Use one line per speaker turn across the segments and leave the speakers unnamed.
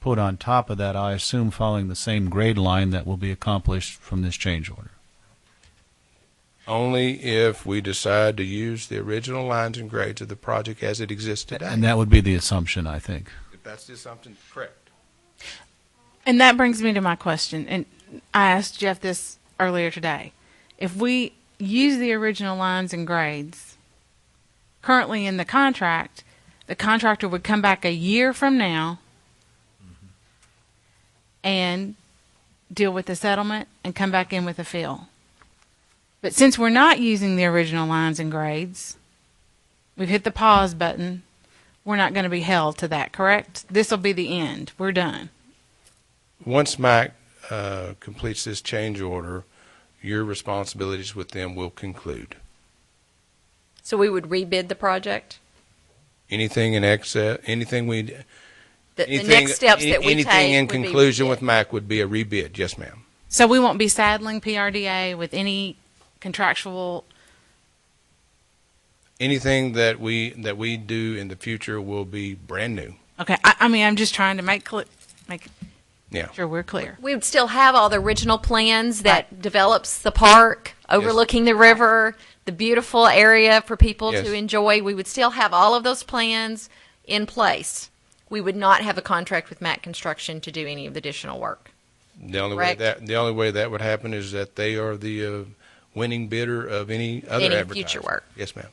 put on top of that, I assume following the same grade line that will be accomplished from this change order.
Only if we decide to use the original lines and grades of the project as it exists today.
And that would be the assumption, I think.
If that's just something correct.
And that brings me to my question. And I asked Jeff this earlier today. If we use the original lines and grades currently in the contract, the contractor would come back a year from now and deal with the settlement and come back in with a fill. But since we're not using the original lines and grades, we've hit the pause button. We're not going to be held to that, correct? This will be the end. We're done.
Once Mike uh, completes this change order, your responsibilities with them will conclude.
So we would rebid the project?
Anything in excess, anything we,
The, the
anything.
next steps that we
any-
take?
Anything in
would be
conclusion
rebid.
with Mike would be a rebid, yes, ma'am.
So we won't be saddling PRDA with any contractual.
anything that we that we do in the future will be brand new.
Okay, I, I mean, I'm just trying to make clear, make
Yeah.
sure we're clear.
We would still have all the original plans that develops the park overlooking the river, the beautiful area for people
Yes.
to enjoy. We would still have all of those plans in place. We would not have a contract with Matt Construction to do any of the additional work.
The only
Correct.
way that the only way that would happen is that they are the uh, winning bidder of any other
Any future
advertising.
work.
Yes, ma'am.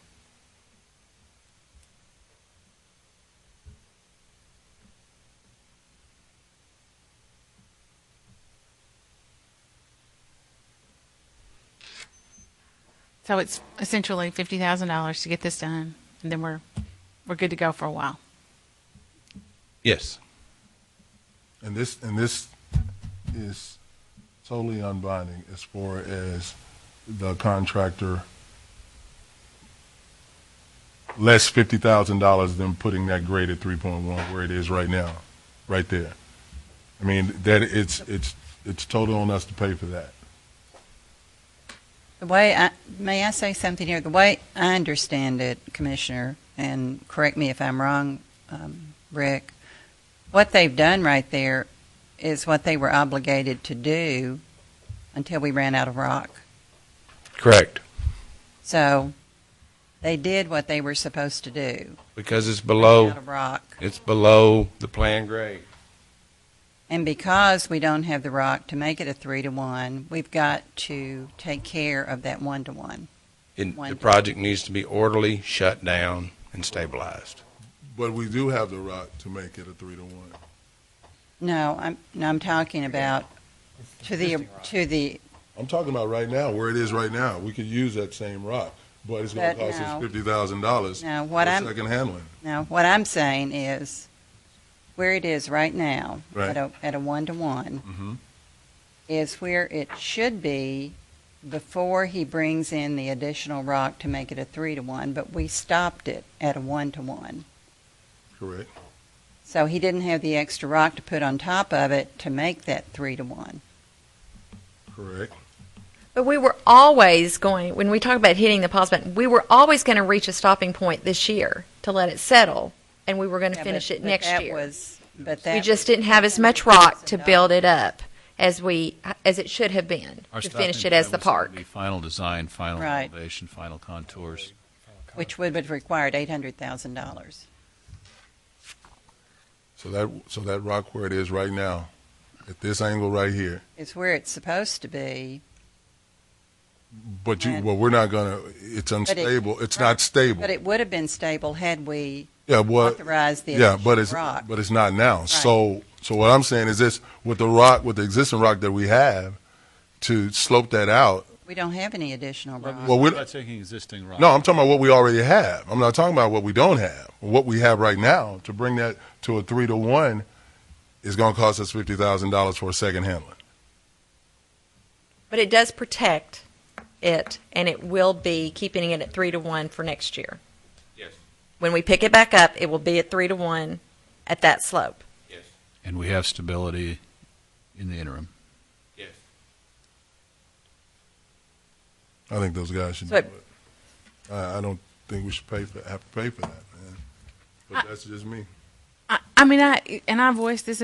So it's essentially fifty thousand dollars to get this done, and then we're we're good to go for a while.
Yes.
And this, and this is totally unbinding as far as the contractor less fifty thousand dollars than putting that grade at three point one where it is right now, right there. I mean, that, it's, it's, it's total on us to pay for that.
The way I, may I say something here? The way I understand it, Commissioner, and correct me if I'm wrong, um, Rick, what they've done right there is what they were obligated to do until we ran out of rock.
Correct.
So they did what they were supposed to do.
Because it's
Out
below
of rock.
it's below the plan grade.
And because we don't have the rock to make it a three to one, we've got to take care of that one to one.
It, the
One.
project needs to be orderly, shut down, and stabilized.
But we do have the rock to make it a three to one.
No, I'm, no, I'm talking about to the, to the
I'm talking about right now, where it is right now. We could use that same rock, but it's gonna
But
cost us
no.
fifty thousand dollars.
Now, what I'm-
Second handling.
Now, what I'm saying is, where it is right now,
Right.
at a, at a one-to-one,
Mhm.
is where it should be before he brings in the additional rock to make it a three-to-one, but we stopped it at a one-to-one.
Correct.
So he didn't have the extra rock to put on top of it to make that three-to-one.
Correct.
But we were always going, when we talk about hitting the pause button, we were always going to reach a stopping point this year to let it settle, and we were going to
Yeah,
finish
but-
it
but
next
that
year.
was- But that.
we just didn't have as much rock to build it up as we as it should have been
Our
to
stopping
finish it as
point
the
was
park.
the Final design, final
Right.
elevation, final contours.
Which would have required eight hundred thousand dollars.
So that, so that rock where it is right now, at this angle right here,
It's where it's supposed to be,
but you,
Right.
well, we're not gonna, it's unstable, it's not stable.
but it would have been stable had we
Yeah, what,
authorized the
yeah, but it's,
additional rock.
but it's not now. So, so what I'm saying is this, with the rock, with the existing rock that we have, to slope that out,
We don't have any additional rock.
well,
We're
we're,
not taking existing rock.
no, I'm talking about what we already have. I'm not talking about what we don't have. What we have right now, to bring that to a three to one, is gonna cost us fifty thousand dollars for a second handling.
But it does protect it, and it will be keeping it at three to one for next year.
Yes.
When we pick it back up, it will be at three to one at that slope.
Yes.
And we have stability in the interim.
Yes.
I think those guys should do
So it-
it. I, I don't think we should pay for, have to pay for that, man. But that's just me.
I, I mean, I and I voiced this